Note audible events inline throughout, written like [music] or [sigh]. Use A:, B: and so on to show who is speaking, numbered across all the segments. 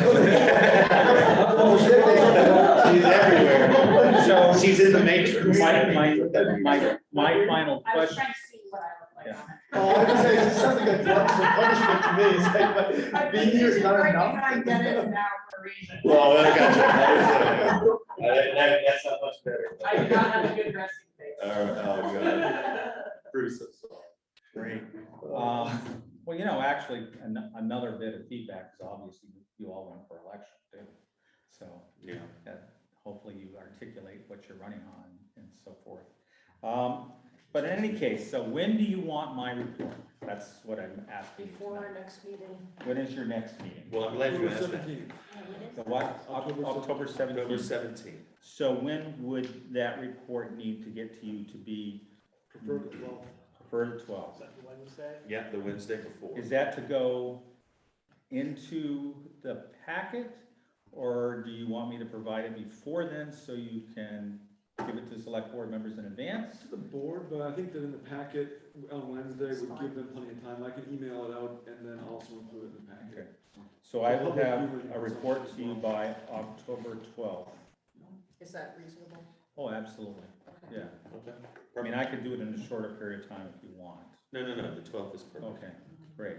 A: Um,
B: put that in.
C: My, my final
D: I was
C: question,
D: trying to see what I looked like on it.
B: Oh, I just say, it's something like drugs and punishment to me, it's
D: I
B: like, [laughs]
D: think
B: being
D: you
B: here is
D: should
B: not
D: write
B: enough.
D: behind Dennis now for a reason.
A: [laughs] Well, I got you. That was, uh, that- that- that's not much better.
D: I do not have a good resting face.
A: All right, oh, God.
D: [laughs]
A: Bruce, I'm sorry.
C: great. Um, well, you know, actually, an- another bit of feedback is obviously you all went for election too. So
A: Yeah.
C: that hopefully you articulate what you're running on and so forth. Um, but in any case, so when do you want my report? That's what I'm asking. you
E: Before our
C: tonight.
E: next meeting.
C: When is your next meeting?
A: Well, I'm glad you asked that.
B: Seventeen.
C: The what? Oc- October
A: October
C: seventeenth.
A: seventeenth.
C: So when would that report need to get to you to be
B: Preferred twelve,
C: preferred to twelve?
B: that Wednesday?
A: Yeah, the Wednesday before.
C: Is that to go into the packet? Or do you want me to provide it before then so you can give it to select board members in advance?
F: to the board, but I think that in the packet on Wednesday
E: It's
F: would
E: fine.
F: give them plenty of time. I can email it out and then also include it in the packet.
C: Okay. So I will have a report to you by October twelfth.
E: Is that reasonable?
C: Oh, absolutely,
E: Okay.
C: yeah.
A: Okay.
C: I mean, I could do it in a shorter period of time if you want.
A: No, no, no, the twelfth is perfect.
C: Okay, great.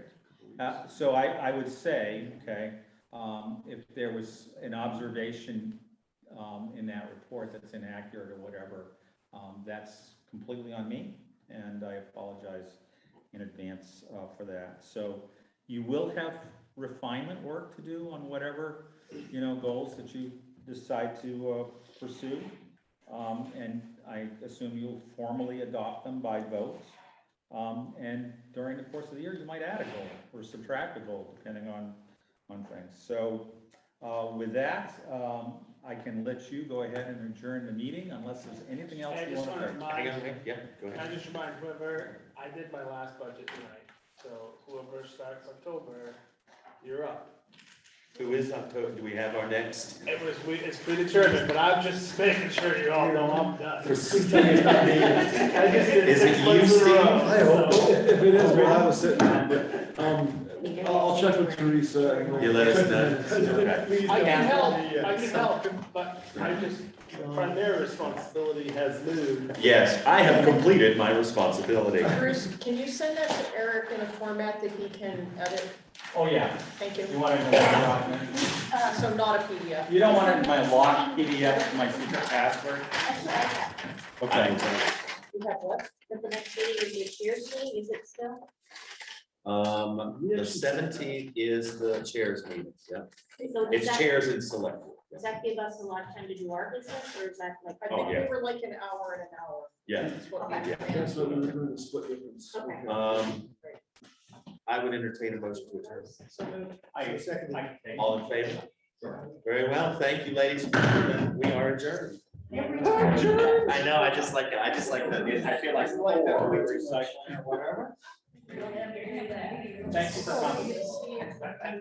C: Uh, So I, I would say, okay, um, if there was an observation um, in that report that's inaccurate or whatever, um, that's completely on me, and I apologize in advance uh, for that. So you will have refinement work to do on whatever, you know, goals that you decide to uh, pursue. Um, And I assume you'll formally adopt them by vote. Um, and during the course of the year, you might add a goal or subtract a goal depending on, on things. So, uh, with that, um, I can let you go ahead and adjourn the meeting unless there's anything else
G: I
C: you
G: just
C: want
G: want to
C: to say.
A: Hang on,
G: remind,
A: hang- yeah, go
G: I
A: ahead.
G: just remind whoever, I did my last budget tonight, so whoever starts October, you're up.
A: Who is October? Do we have our next?
G: It was, we, it's predetermined, but I'm just [laughs] making sure you all know I'm done.
A: For Steve.
G: I just did
A: Is it
G: six
A: you,
G: months in a
A: Steve?
G: row,
F: [laughs] I hope,
G: so-
F: if it is, we'll have a sit down, but, um, I'll, I'll check with Teresa. and we'll-
A: You let us know. Okay.
B: Please
G: I
B: don't
G: can help,
B: be, uh,
G: I can help, but I just, primary responsibility has moved.
A: Yes, I have completed my responsibility.
E: Bruce, can you send that to Eric in a format that he can edit?
C: Oh, yeah,
E: Thank you.
C: you want to know what document?
E: So not a PDF.
C: You don't want it in my locked PDF, with my secret password? Okay.
H: You have what? That the next meeting is your chair's meeting, is it still?
A: Um, the seventeenth is the chairs meeting, yeah.
H: So does
A: It's
H: that,
A: chairs and select. board, yeah.
H: does that give us a lot of time to do our business, or is that like?
E: I
A: Oh,
E: think
A: yeah.
E: we were like an hour and an hour.
A: Yeah.
E: That's what we
H: Okay.
E: planned.
F: So we're doing the split difference.
H: Okay.
A: Um, I would entertain a motion to adjourn.
E: So moved.
C: I,
B: Second.
C: I,
A: All in favor? Very well, thank you, ladies and gentlemen, we are adjourned.
D: Every time.
A: I know, I just like, I just like that, I feel like.
C: whatever.
D: You don't have to do that.
C: Thank you for coming.
E: So,